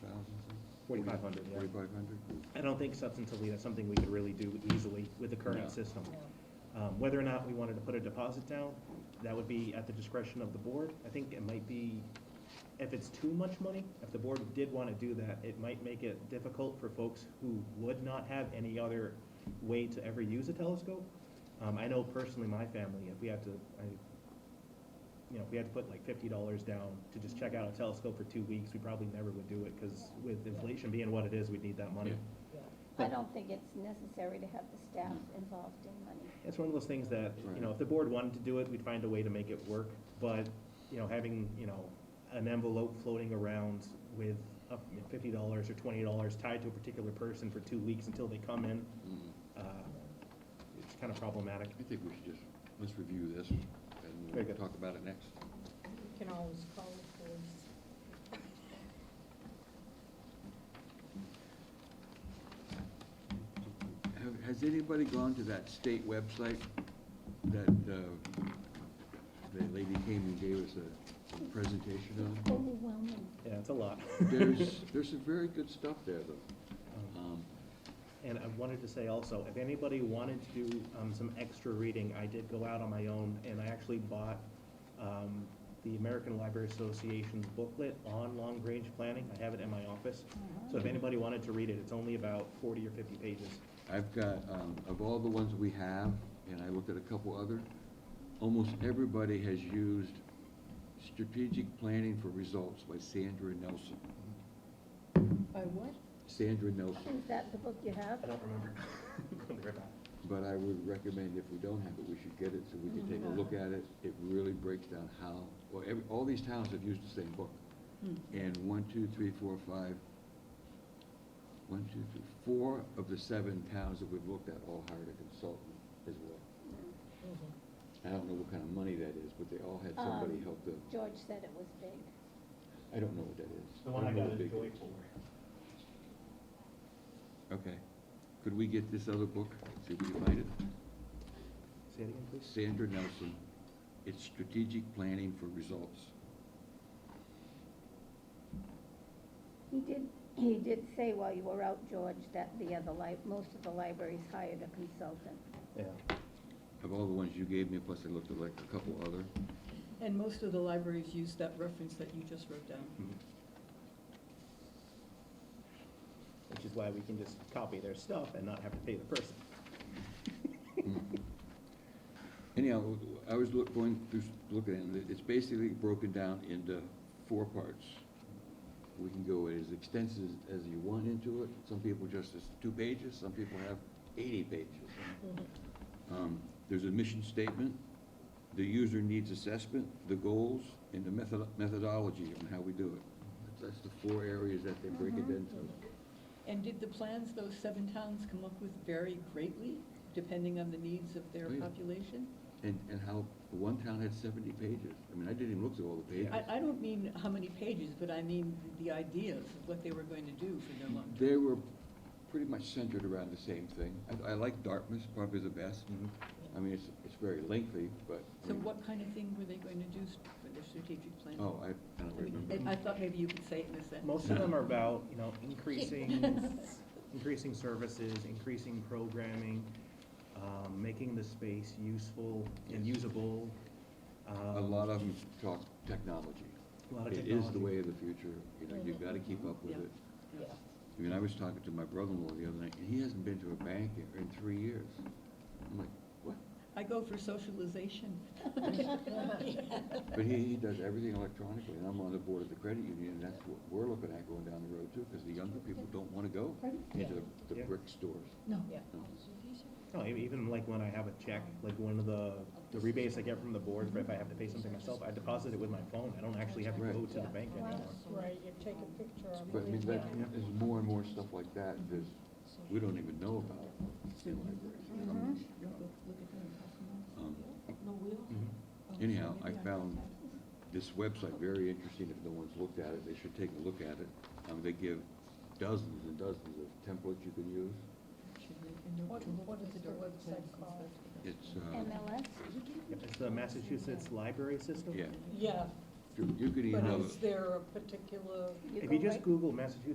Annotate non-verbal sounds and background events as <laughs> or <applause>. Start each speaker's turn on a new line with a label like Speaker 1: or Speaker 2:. Speaker 1: Forty-five hundred, yeah.
Speaker 2: Forty-five hundred?
Speaker 1: I don't think substantively that's something we could really do easily with the
Speaker 3: No.
Speaker 1: current system. Um, Whether or not we wanted to put a deposit down, that would be at the discretion of the board. I think it might be, if it's too much money, if the board did want to do that, it might make it difficult for folks who would not have any other way to ever use a telescope. Um, I know personally, my family, if we had to, I, you know, if we had to put like fifty dollars down to just check out a telescope for two weeks, we probably never would do it, because with inflation being what it is, we'd need that money.
Speaker 3: Yeah.
Speaker 4: I
Speaker 1: But-
Speaker 4: don't Mm. think it's necessary to have the staff involved in money.
Speaker 1: It's one of those things that, you know,
Speaker 2: Right.
Speaker 1: if the board wanted to do it, we'd find a way to make it work, but, you know, having, you know, an envelope floating around with up, you know, fifty dollars or twenty dollars tied to a particular person for two weeks until they come in,
Speaker 2: Mm-hmm.
Speaker 1: uh, it's kind of problematic.
Speaker 2: I think we should just, let's review this
Speaker 1: Very
Speaker 2: and
Speaker 1: good.
Speaker 2: talk about it next.
Speaker 5: You can always call the police.
Speaker 2: Have- Has anybody gone to that state website that, uh, that lady came and gave us a presentation
Speaker 4: It's
Speaker 2: on?
Speaker 4: overwhelming.
Speaker 1: Yeah, it's a lot. <laughs>
Speaker 2: There's, there's some very good stuff there, though.
Speaker 1: Um,
Speaker 2: Um,
Speaker 1: And I wanted to say also, if anybody wanted to do um, some extra reading, I did go out on my own, and I actually bought um, the American Library Association's booklet on long-range planning. I have it in my office. So if anybody wanted to read it, it's only about forty or fifty pages.
Speaker 2: I've got, um, of all the ones we have, and I looked at a couple other, almost everybody has used Strategic Planning for Results by Sandra Nelson.
Speaker 5: By what?
Speaker 2: Sandra Nelson,
Speaker 4: Is that the book you have?
Speaker 1: I don't remember. <laughs> Let me write that.
Speaker 2: but I would recommend if we don't have it, we should get it so we can take a look at it. It really breaks down how, well, every, all these towns have used the same book. And one, two, three, four, five, one, two, three, four of the seven towns that we've looked at all hired a consultant as well.
Speaker 5: Mm-hmm.
Speaker 2: I don't know what kind of money that is, but they all had somebody
Speaker 4: Um,
Speaker 2: help them.
Speaker 4: George said it was big.
Speaker 2: I don't know what that is.
Speaker 1: The one I
Speaker 2: don't know
Speaker 1: got
Speaker 2: what
Speaker 1: is
Speaker 2: big it
Speaker 1: Joy
Speaker 2: is.
Speaker 1: for.
Speaker 2: Okay. Could we get this other book? See if we can find it.
Speaker 1: Say it again, please.
Speaker 2: Sandra Nelson, it's Strategic Planning for Results.
Speaker 4: He did, he did say while you were out, George, that the other li, most of the libraries hired a consultant.
Speaker 1: Yeah.
Speaker 2: Of all the ones you gave me, plus I looked at like a couple other.
Speaker 6: And most of the libraries use that reference that you just wrote down.
Speaker 1: Which is why we can just copy their stuff and not have to pay the person.
Speaker 2: Anyhow, I was look, going through, looking at it, it's basically broken down into four parts. We can go as extensive as you want into it. Some people just, it's two pages, some people have eighty pages.
Speaker 5: Mm-hmm.
Speaker 2: Um, There's a mission statement, the user needs assessment, the goals, and the method- methodology on how we do it. That's the four areas that they break it into.
Speaker 6: Mm-hmm. And did the plans those seven towns come up with vary greatly, depending on the needs of their
Speaker 2: Oh, yeah.
Speaker 6: population?
Speaker 2: And, and how, one town had seventy pages. I mean, I didn't even look through all the pages.
Speaker 6: I, I don't mean how many pages, but I mean the ideas of what they were going to do for their long-term.
Speaker 2: They were pretty much centered around the same thing. I, I like Dartmouth probably the best. I mean, it's, it's very lengthy, but. I
Speaker 6: Mm-hmm. So
Speaker 2: mean-
Speaker 6: what kind of thing were they going to do s- for their strategic plan?
Speaker 2: Oh, I, I don't remember.
Speaker 6: I- I thought maybe you could say it in a sentence.
Speaker 1: Most of
Speaker 6: <laughs>
Speaker 1: them are about, you know, increasing, increasing services, increasing programming, um, making the space useful and
Speaker 2: Yes.
Speaker 1: usable. Um,
Speaker 2: A lot of them talk technology.
Speaker 1: A lot of
Speaker 2: It is the
Speaker 1: technology.
Speaker 2: way of the future, you know, you've gotta keep up with
Speaker 6: Yeah.
Speaker 2: it.
Speaker 6: Yeah.
Speaker 2: I mean, I was talking to my brother-in-law the other night, and he hasn't been to a bank in, in three years. I'm like, what?
Speaker 6: I go for socialization. <laughs>
Speaker 2: But he, he does everything electronically, and I'm on the board of the credit union, and that's what we're looking at going down the road too, because the younger people don't wanna go into the- the
Speaker 1: Yeah.
Speaker 2: brick stores.
Speaker 6: No.
Speaker 5: Yeah.
Speaker 2: No.
Speaker 1: No, e- even like when I have a check, like one of the, the rebates I get from the board, if I have to pay something myself, I deposit it with my phone. I don't actually have to go
Speaker 2: Right.
Speaker 1: to the bank anymore.
Speaker 5: Right, you take a picture of it.
Speaker 2: But I mean, that,
Speaker 5: Yeah.
Speaker 2: there's more and more stuff like that, there's, we don't even know about in
Speaker 4: Mm-hmm.
Speaker 2: libraries. Um,
Speaker 1: Mm-hmm.
Speaker 2: Anyhow, I found this website very interesting, if no one's looked at it, they should take a look at it. Um, they give dozens and dozens of templates you can use.
Speaker 5: What, what is the website called?
Speaker 2: It's, uh,
Speaker 4: MLS?
Speaker 1: Yep, It's the Massachusetts Library System.
Speaker 2: yeah,
Speaker 5: Yeah,
Speaker 2: you you could
Speaker 5: but
Speaker 2: email
Speaker 5: is
Speaker 2: it,
Speaker 5: there a particular,
Speaker 1: If you
Speaker 4: go
Speaker 1: just
Speaker 4: right-
Speaker 1: Google Massachusetts